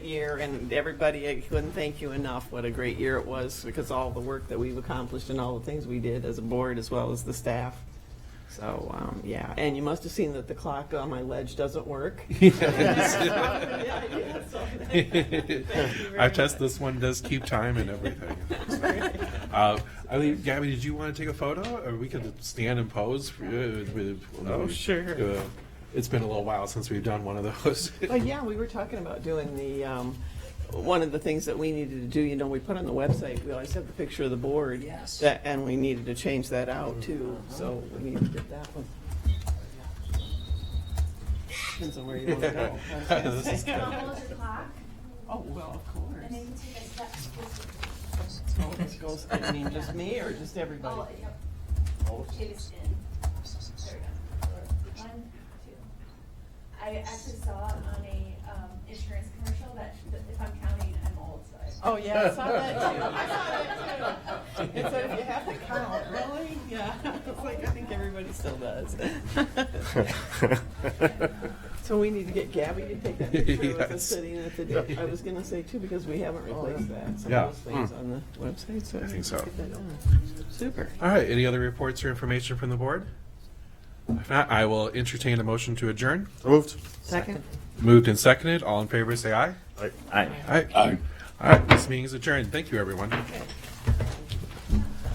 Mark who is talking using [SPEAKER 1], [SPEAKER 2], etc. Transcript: [SPEAKER 1] year, and everybody, I couldn't thank you enough, what a great year it was, because all the work that we've accomplished and all the things we did as a board as well as the staff. So, um, yeah, and you must have seen that the clock on my ledge doesn't work. Yeah, yeah, so thank you very
[SPEAKER 2] I test
[SPEAKER 1] much.
[SPEAKER 2] this one does keep time and everything. Uh, I mean, Gabby, did you want to take a photo, or we could stand and pose? for you?
[SPEAKER 1] Oh, sure.
[SPEAKER 2] Uh, It's been a little while since we've done one of those.
[SPEAKER 1] Well, yeah, we were talking about doing the, um, one of the things that we needed to do, you know, we put on the website, we always have the picture of the board.
[SPEAKER 3] Yes.
[SPEAKER 1] that- And we needed to change that out too,
[SPEAKER 2] Mm-hmm.
[SPEAKER 1] so we need to get that one. Depends on where you want to go.
[SPEAKER 2] This is good.
[SPEAKER 4] Almost a clock,
[SPEAKER 1] Oh, well, of
[SPEAKER 4] and then
[SPEAKER 1] course.
[SPEAKER 4] you take a step.
[SPEAKER 1] So this goes, I mean, just me or just
[SPEAKER 4] Oh,
[SPEAKER 1] everybody?
[SPEAKER 4] yep. It is in. There we go. One, two. I actually saw it on a, um, insurance commercial that, that if I'm counting, I'm old, so I.
[SPEAKER 1] Oh, yeah, I saw that too. I saw that too. It said if you have to count, really? Yeah. It's like, I think everybody still does. So we need to get Gabby to take that picture of
[SPEAKER 2] Yes.
[SPEAKER 1] us sitting at the, door. I was gonna say too, because we haven't replaced that, some
[SPEAKER 2] Yeah. Hmm.
[SPEAKER 1] of those things on the website, so.
[SPEAKER 2] I think so.
[SPEAKER 1] get that done. Super.
[SPEAKER 2] All right, any other reports or information from the board? If not, I will entertain a motion to adjourn.
[SPEAKER 5] Moved.
[SPEAKER 1] Second.
[SPEAKER 2] Moved and seconded, all in favor, say aye.
[SPEAKER 5] Aye.
[SPEAKER 2] Aye. Aye. All right, this meeting is adjourned. Thank you, everyone.